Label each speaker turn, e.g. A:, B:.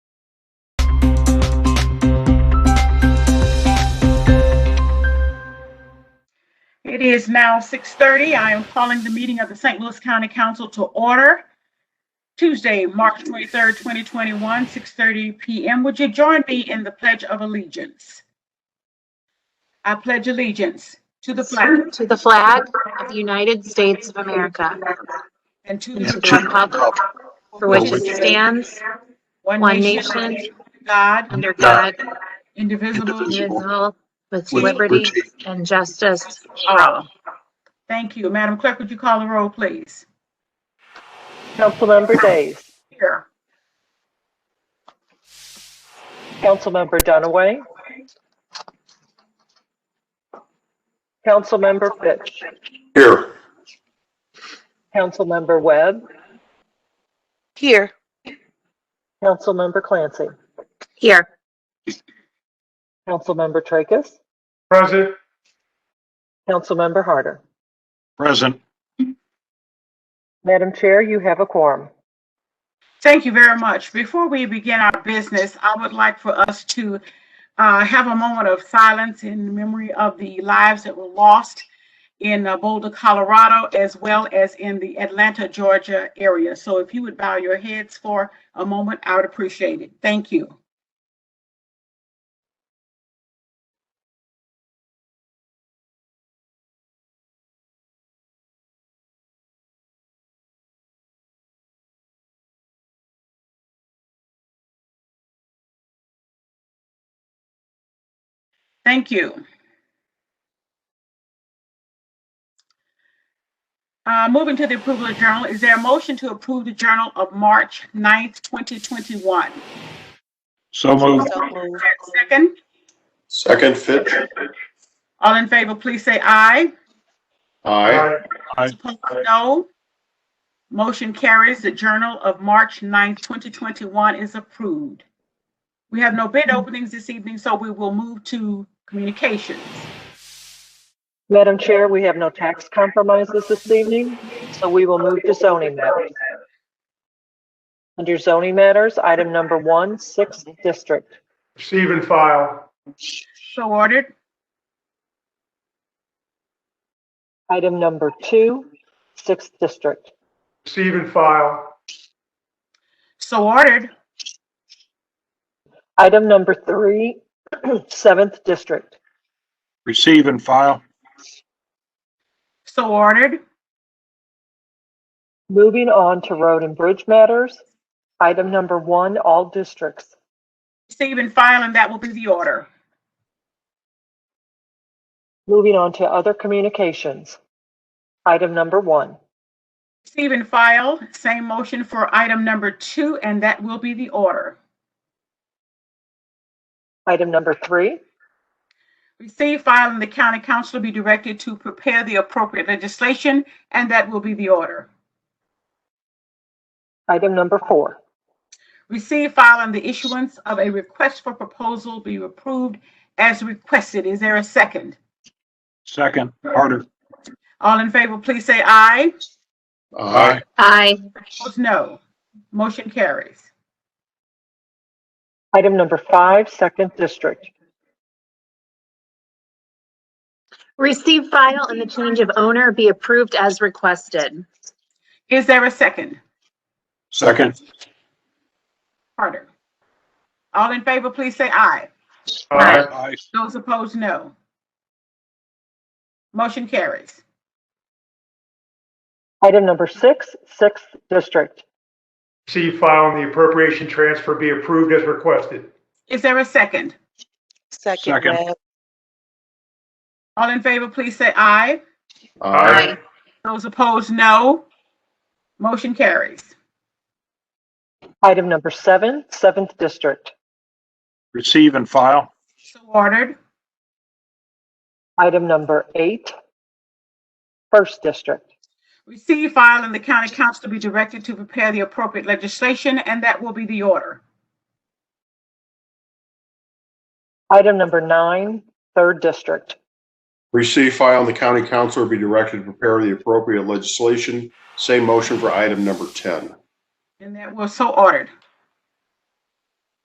A: It is now 6:30. I am calling the meeting of the St. Louis County Council to order. Tuesday, March 23rd, 2021, 6:30 PM. Would you join me in the Pledge of Allegiance? I pledge allegiance to the flag
B: To the flag of the United States of America
A: and to
B: and to
A: the
B: the republic for which it stands, one nation,
A: God,
B: under God,
A: indivisible.
B: indivisible, with liberty and justice for all.
A: Thank you. Madam Clerk, would you call the roll, please?
C: Councilmember Days.
A: Here.
C: Councilmember Dunaway. Councilmember Fitch.
D: Here.
C: Councilmember Webb.
E: Here.
C: Councilmember Clancy.
B: Here,
C: Councilmember Tracus.
D: Present.
C: Councilmember Harder.
D: Present.
C: Madam Chair, you have a quorum.
A: Thank you very much. Before we begin our business, I would like for us to uh, have a moment of silence in memory of the lives that were lost in uh, Boulder, Colorado, as well as in the Atlanta, Georgia area. So if you would bow your heads for a moment, I would appreciate it. Thank you. Thank you. Uh, Moving to the approval of journal, is there a motion to approve the journal of March 9th, 2021?
D: So moved.
E: So moved.
A: Second,
F: Second, Fitch.
A: all in favor, please say aye.
F: Aye.
A: Opposed, no. Motion carries. The Journal of March 9th, 2021 is approved. We have no bid openings this evening, so we will move to communications.
C: Madam Chair, we have no tax compromises this evening, so we will move to zoning matters. Under zoning matters, item number one, sixth district.
G: Receive and file.
A: So ordered.
C: Item number two, sixth district.
G: Receive and file.
A: So ordered.
C: Item number three, seventh district.
D: Receive and file.
A: So ordered.
C: Moving on to road and bridge matters. Item number one, all districts.
A: Receive and file, and that will be the order.
C: Moving on to other communications. Item number one.
A: Receive and file, same motion for item number two, and that will be the order.
C: Item number three.
A: Receive, file, and the county council will be directed to prepare the appropriate legislation, and that will be the order.
C: Item number four.
A: Receive, file, and the issuance of a request for proposal be approved as requested. Is there a second?
D: Second. Harder.
A: All in favor, please say aye.
F: Aye.
B: aye,
A: Opposed, no. Motion carries.
C: Item number five, second district.
B: receive file and the change of owner be approved as requested.
A: Is there a second?
D: Second.
A: Carter. All in favor, please say aye.
G: Aye.
D: Aye.
A: Those opposed, no. Motion carries.
C: Item number six, sixth district.
G: Receive, file, and the appropriation transfer be approved as requested.
A: Is there a second?
E: Second
D: Second.
E: Webb.
A: All in favor, please say aye.
F: Aye.
A: Those opposed, no. Motion carries.
C: Item number seven, seventh district.
D: Receive and file.
A: So ordered.
C: Item number eight, first district.
A: Receive, file, and the county council to be directed to prepare the appropriate legislation, and that will be the order.
C: Item number nine, third district.
F: Receive, file, and the county council will be directed to prepare the appropriate legislation. Same motion for item number 10.
A: And that was so ordered.